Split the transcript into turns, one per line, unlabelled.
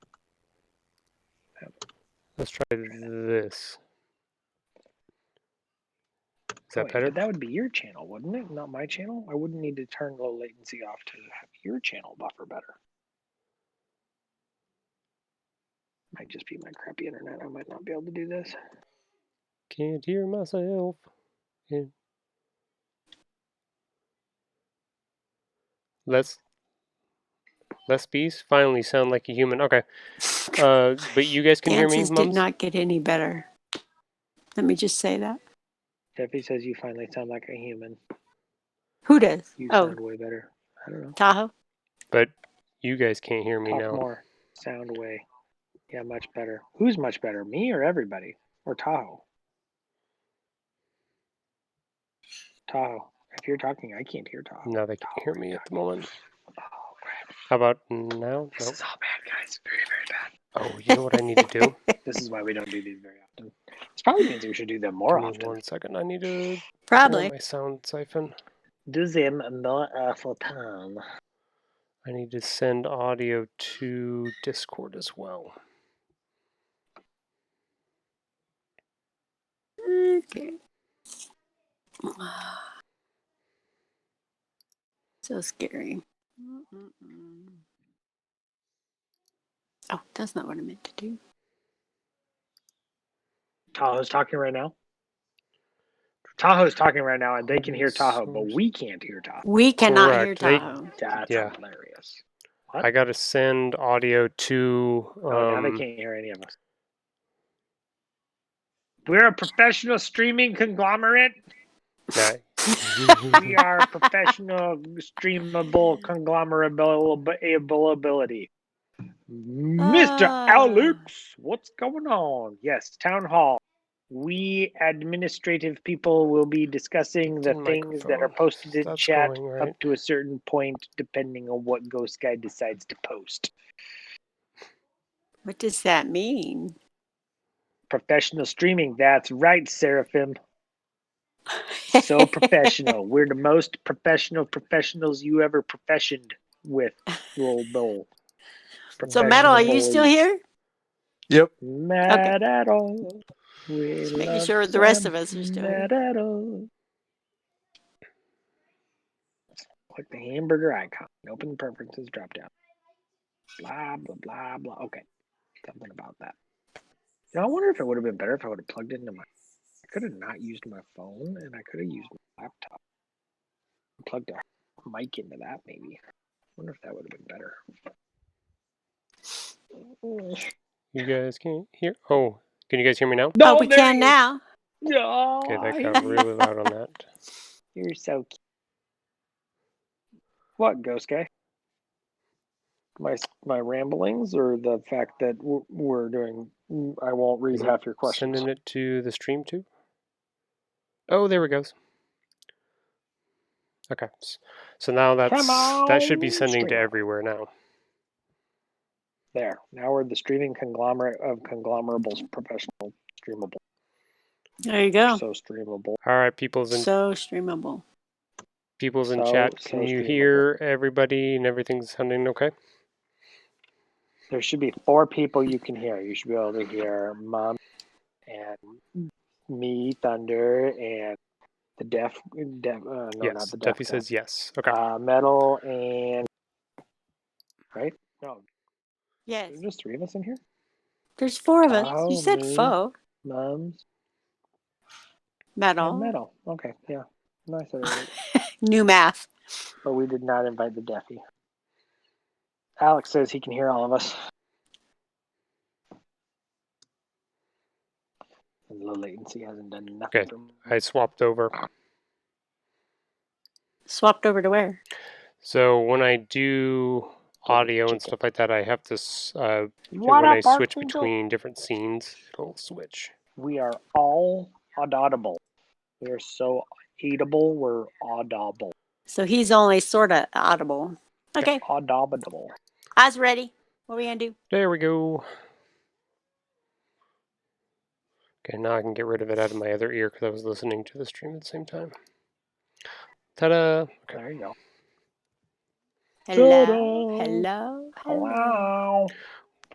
Let's try this. Is that
Wait,
better?
But Oh, that would be your channel, wouldn't it? Not my channel. I wouldn't need to turn low latency off to have your channel buffer better. Might just be my crappy internet. I might not be able to do this.
Can't hear myself. Yeah. Let's Les Bees finally sound like a human. Okay. Uh, but you guys can
Dances
hear me,
did
mums?
not get any better. Let me just say that.
Jeffy says you finally sound like a human.
Who does?
You
Oh,
sound way better. I don't know.
Tahoe.
But you guys can't hear me
Talk
now.
more. Sound way. Yeah, much better. Who's much better? Me or everybody? Or Tahoe? Tahoe. If you're talking, I can't hear Tahoe.
Now they can hear me at the moment.
Oh, crap.
How about now?
This
Nope.
is all bad, guys. Very, very bad.
Oh, you know what I need to do?
This is why we don't do these very often. This probably means we should do them more
Give me
often.
one second. I need to turn on
Probably.
my sound siphon.
Do them more often.
I need to send audio to Discord as well.
Okay. So scary. Oh, that's not what I meant to do.
Tahoe's talking right now. Tahoe's talking right now, and they can hear Tahoe, but we can't hear Tahoe.
We cannot hear
Correct. They-
Tahoe.
That's
Yeah.
hilarious. What?
I got to send audio to. Um,
oh, now they can't hear any of us. We're a professional streaming conglomerate.
Nah.
We are a professional streamable conglomerate ability. Mr.
Ah.
Alex, what's going on? Yes, town hall. We administrative people will be discussing the
Ten
things that are
microphones.
posted in
That's
chat
going right.
up to a certain point, depending on what Ghost Guy decides to post.
What does that mean?
Professional streaming, that's right, Seraphim. So professional. We're the most professional professionals you ever professioned with, Roll Bowl.
so, Metal, are you still
Professionals.
here?
Yep.
Mad at all. We
Just making
love
sure the rest
them.
of us are still here.
Mad at all. Click the hamburger icon. Open the preferences drop down. Blah, blah, blah, blah. Okay. Something about that. Now, I wonder if it would have been better if I would have plugged into my. I could have not used my phone and I could have used my laptop. Plugged a mic into that, maybe. I wonder if that would have been better.
You guys can't hear. Oh, can you guys hear me now?
oh, we
there
can
it is.
now.
No,
Okay,
I
that got really loud on that.
You're so cute. What, Ghost Guy? My my ramblings, or the fact that w- we're doing? mm, I won't read
Is it
half your questions.
Sending it to the stream too. Oh, there it goes. Okay, s- so now that's that should be
on,
sending to
stream.
everywhere now.
There. Now we're the streaming conglomerate of conglomerables, professional streamable,
There you go.
so streamable.
All right, people's in
So streamable.
people's in
so-
chat.
so
Can you
streamable.
hear everybody and everything sounding okay?
There should be four people you can hear. You should be able to hear Mom and me, Thunder, and the deaf. deaf uh, no, not
yes.
the deaf.
Duffy
guy.
says yes. Okay.
uh, metal and right? No,
Yes.
there's just three of us in here.
There's four of us. you
Oh,
said
me.
foe.
Mums
Metal.
and metal. Okay, yeah, nice. I said it right.
New math.
but we did not invite the deafy. Alex says he can hear all of us. And low latency hasn't done nothing.
Okay.
for me.
I swapped over.
Swapped over to where?
So when I do
Double
audio and
check it.
stuff like that, I have to s- uh,
What
when
up,
I switch
Archangel?
between different scenes, it'll switch.
We are all audible. We are so eatable. We're audible.
So he's only sort of audible. Okay.
Audible.
Eyes ready. What are we going to do?
There we go. Okay, now I can get rid of it out of my other ear because I was listening to the stream at the same time. Ta-da! Okay.
There you go.
Hello.
Ta-da.
Hello. Hello.
Wow.